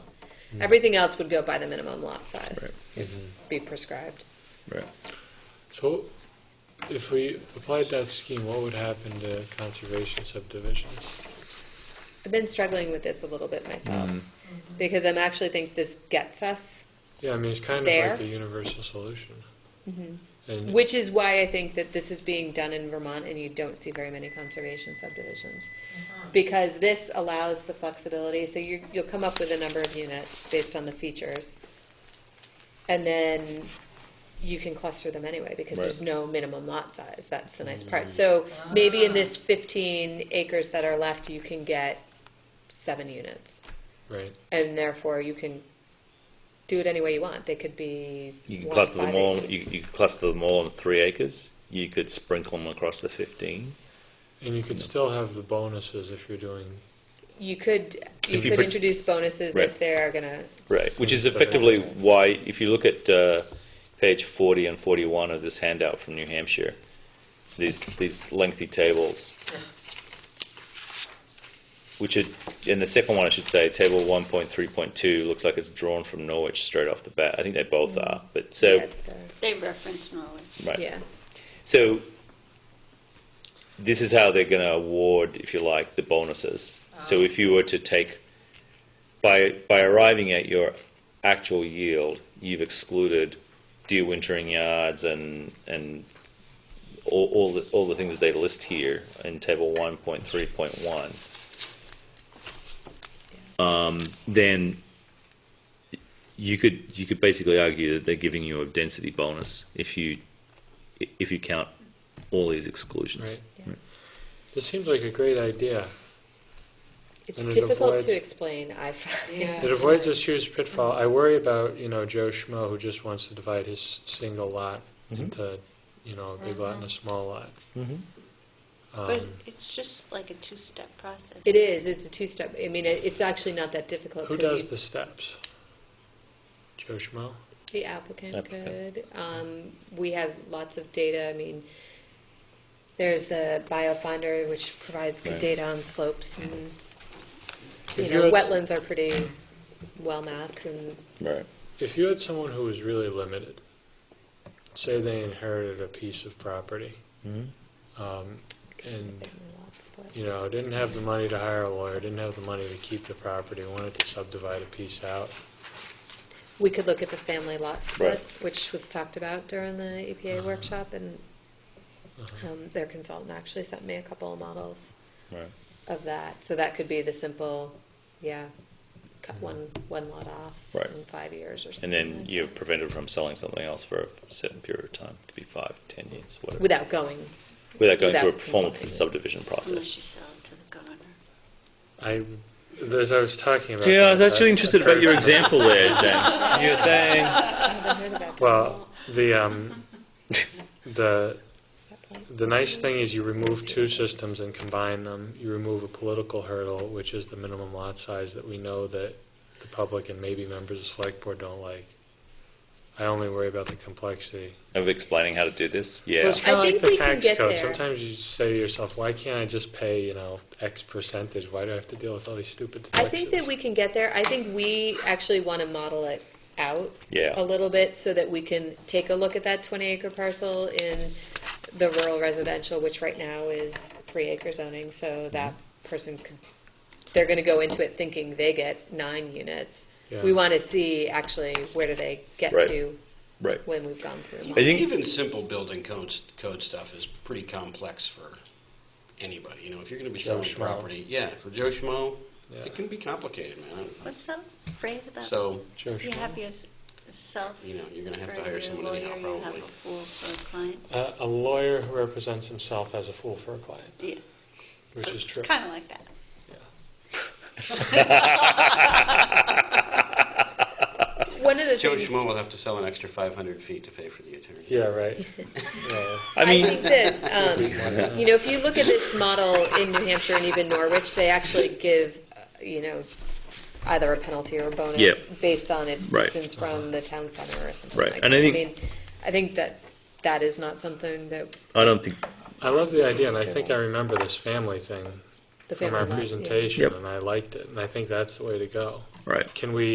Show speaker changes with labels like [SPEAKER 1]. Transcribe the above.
[SPEAKER 1] Everything else would go by the minimum lot size, be prescribed.
[SPEAKER 2] Right.
[SPEAKER 3] So, if we applied that scheme, what would happen to conservation subdivisions?
[SPEAKER 1] I've been struggling with this a little bit myself because I'm actually think this gets us,
[SPEAKER 3] Yeah, I mean, it's kind of
[SPEAKER 1] There. Mm-hmm.
[SPEAKER 3] like a universal solution. And
[SPEAKER 1] which is why I think that this is being done in Vermont and you don't see very many conservation subdivisions. Because this allows the flexibility, so you, you'll come up with a number of units based on the features. And then you can cluster them anyway because
[SPEAKER 2] Right.
[SPEAKER 1] there's no minimum lot size. That's the nice
[SPEAKER 4] Mm.
[SPEAKER 1] part. So maybe in this 15 acres that are left, you can get seven units.
[SPEAKER 3] Right,
[SPEAKER 1] and therefore you can do it any way you want. They could be
[SPEAKER 4] You can
[SPEAKER 1] one
[SPEAKER 4] cluster them
[SPEAKER 1] five
[SPEAKER 4] all.
[SPEAKER 1] acre-
[SPEAKER 4] You, you could cluster them all on three acres. You could sprinkle them across the fifteen.
[SPEAKER 3] and you could still have the bonuses if you're doing,
[SPEAKER 1] You could you
[SPEAKER 4] If you
[SPEAKER 1] could
[SPEAKER 4] put-
[SPEAKER 1] introduce bonuses
[SPEAKER 4] Right.
[SPEAKER 1] if they're gonna.
[SPEAKER 4] Right, which is
[SPEAKER 3] That's
[SPEAKER 4] effectively
[SPEAKER 3] right.
[SPEAKER 4] why, if you look at uh, page forty and forty-one of this handout from New Hampshire, these these lengthy tables, which are, in the second one, I should say, table one point three point two looks like it's drawn from Norwich straight off the bat. I think they both are, but so
[SPEAKER 1] get the-
[SPEAKER 5] They reference Norwich.
[SPEAKER 4] right.
[SPEAKER 1] yeah.
[SPEAKER 4] So this is how they're going to award, if you like, the bonuses. So if you were to take by by arriving at your actual yield, you've excluded deer wintering yards and and all, all the all the things that they list here in table one point three point one. Um, then you could you could basically argue that they're giving you a density bonus if you if you count all these exclusions.
[SPEAKER 3] right? This seems like a great idea.
[SPEAKER 1] It's
[SPEAKER 3] And it
[SPEAKER 1] difficult
[SPEAKER 3] avoids-
[SPEAKER 1] to explain. I find.
[SPEAKER 6] Yeah.
[SPEAKER 3] It avoids this huge pitfall. I worry about, you know, Joe Schmo who just wants to divide his s- single lot into, you know, a big lot and a
[SPEAKER 1] Mm-hmm.
[SPEAKER 3] small lot.
[SPEAKER 7] Um,
[SPEAKER 3] Um,
[SPEAKER 5] But it's just like a two-step process.
[SPEAKER 1] It is. It's a two-step. I mean, it, it's actually not that difficult.
[SPEAKER 3] Who
[SPEAKER 1] 'cause
[SPEAKER 3] does
[SPEAKER 1] you-
[SPEAKER 3] the steps? Joe Schmo?
[SPEAKER 1] The applicant
[SPEAKER 4] Applicant.
[SPEAKER 1] could. Um, we have lots of data. I mean, there's the biofounder, which provides good
[SPEAKER 4] Right.
[SPEAKER 1] data on slopes and you
[SPEAKER 3] If
[SPEAKER 1] know
[SPEAKER 3] had-
[SPEAKER 1] wetlands are pretty well mapped and
[SPEAKER 4] Right.
[SPEAKER 3] If you had someone who was really limited, say they inherited a piece of property, um,
[SPEAKER 1] family
[SPEAKER 3] and
[SPEAKER 1] lot split.
[SPEAKER 3] you know didn't have the money to hire a lawyer, didn't have the money to keep the property, wanted to subdivide a piece out.
[SPEAKER 1] We could look at the family lot split,
[SPEAKER 4] Right.
[SPEAKER 1] which was talked about during the
[SPEAKER 4] Uh-huh.
[SPEAKER 1] EPA workshop, and um, their consultant actually sent me a couple of models
[SPEAKER 4] Right.
[SPEAKER 1] of that. So that could be the simple, yeah, cut one, one lot off
[SPEAKER 4] Right.
[SPEAKER 1] in five years or
[SPEAKER 4] Mm-hmm. And
[SPEAKER 1] something.
[SPEAKER 4] then
[SPEAKER 1] like
[SPEAKER 4] you're prevented from selling something else for a certain period of time. It could be five, ten years,
[SPEAKER 1] that.
[SPEAKER 4] whatever.
[SPEAKER 1] Without going,
[SPEAKER 4] Without going
[SPEAKER 1] without
[SPEAKER 4] through a formal
[SPEAKER 1] complying.
[SPEAKER 4] subdivision process.
[SPEAKER 5] Unless you sell it to the governor.
[SPEAKER 3] I, as I was talking about.
[SPEAKER 4] Yeah, I
[SPEAKER 3] that,
[SPEAKER 4] was actually
[SPEAKER 3] that
[SPEAKER 4] interested about your
[SPEAKER 3] occurred to me.
[SPEAKER 4] example there, James. You were saying.
[SPEAKER 1] I haven't heard about that.
[SPEAKER 3] Well, the um, the
[SPEAKER 1] Is that point?
[SPEAKER 3] The nice thing is you remove two systems and combine them. You remove a political hurdle, which is the minimum lot size that we know that the public and maybe members of the select board don't like. I only worry about the complexity.
[SPEAKER 4] Of explaining how to do this?
[SPEAKER 3] Well,
[SPEAKER 4] Yeah.
[SPEAKER 3] it's kind of
[SPEAKER 1] I
[SPEAKER 3] like
[SPEAKER 1] think
[SPEAKER 3] the
[SPEAKER 1] we can
[SPEAKER 3] tax
[SPEAKER 1] get
[SPEAKER 3] code.
[SPEAKER 1] there.
[SPEAKER 3] Sometimes you just say to yourself, why can't I just pay, you know, X percentage? Why do I have to deal with all these stupid
[SPEAKER 1] I
[SPEAKER 3] deductions?
[SPEAKER 1] think that we can get there. I think we actually want to model it out
[SPEAKER 4] Yeah.
[SPEAKER 1] a little bit so that we can take a look at that 20 acre parcel in the rural residential, which right now is three acre zoning. So that
[SPEAKER 4] Mm-hmm.
[SPEAKER 1] person could, they're going to go into it thinking they get nine units. We
[SPEAKER 3] Yeah.
[SPEAKER 1] want to see actually where do they get
[SPEAKER 4] Right.
[SPEAKER 1] to
[SPEAKER 4] Right.
[SPEAKER 1] when we've gone through.
[SPEAKER 4] I think-
[SPEAKER 7] Even simple building codes, code stuff is pretty complex for anybody. You know, if you're going to be
[SPEAKER 3] Joe
[SPEAKER 7] selling
[SPEAKER 3] Schmo.
[SPEAKER 7] property, yeah, for Joe Schmo,
[SPEAKER 3] Yeah.
[SPEAKER 7] it can be complicated, man.
[SPEAKER 5] What's that phrase about?
[SPEAKER 7] So,
[SPEAKER 3] Joe
[SPEAKER 5] You
[SPEAKER 3] Schmo.
[SPEAKER 5] have yourself.
[SPEAKER 7] You know, you're gonna have to
[SPEAKER 5] for
[SPEAKER 7] hire
[SPEAKER 5] your
[SPEAKER 7] someone anyhow,
[SPEAKER 5] lawyer, You have
[SPEAKER 7] probably.
[SPEAKER 5] a fool for a client.
[SPEAKER 3] Uh, A- a lawyer who represents himself as a fool for a client,
[SPEAKER 5] Yeah.
[SPEAKER 3] which is true.
[SPEAKER 5] It's kind of like that.
[SPEAKER 1] One of the
[SPEAKER 7] Joe
[SPEAKER 1] things.
[SPEAKER 7] Schmo will have to sell an extra 500 feet to pay for the attorney.
[SPEAKER 3] Yeah, right. Yeah.
[SPEAKER 4] I
[SPEAKER 1] I
[SPEAKER 4] mean,
[SPEAKER 1] think that, um, you know, if you look at this model in New Hampshire and even Norwich, they actually give, uh, you know, either a penalty or a
[SPEAKER 4] Yep.
[SPEAKER 1] bonus based on its
[SPEAKER 4] Right.
[SPEAKER 1] distance from the town center or something
[SPEAKER 4] Right.
[SPEAKER 1] like that.
[SPEAKER 4] And I think-
[SPEAKER 1] mean, I think that that is not something that
[SPEAKER 4] I don't think.
[SPEAKER 3] I love the idea, and I think I remember this family thing
[SPEAKER 1] the family.
[SPEAKER 3] from our
[SPEAKER 1] law- yeah.
[SPEAKER 3] presentation,
[SPEAKER 4] Yep.
[SPEAKER 3] and I liked it, and I think that's the way to go.
[SPEAKER 4] Right.
[SPEAKER 3] Can we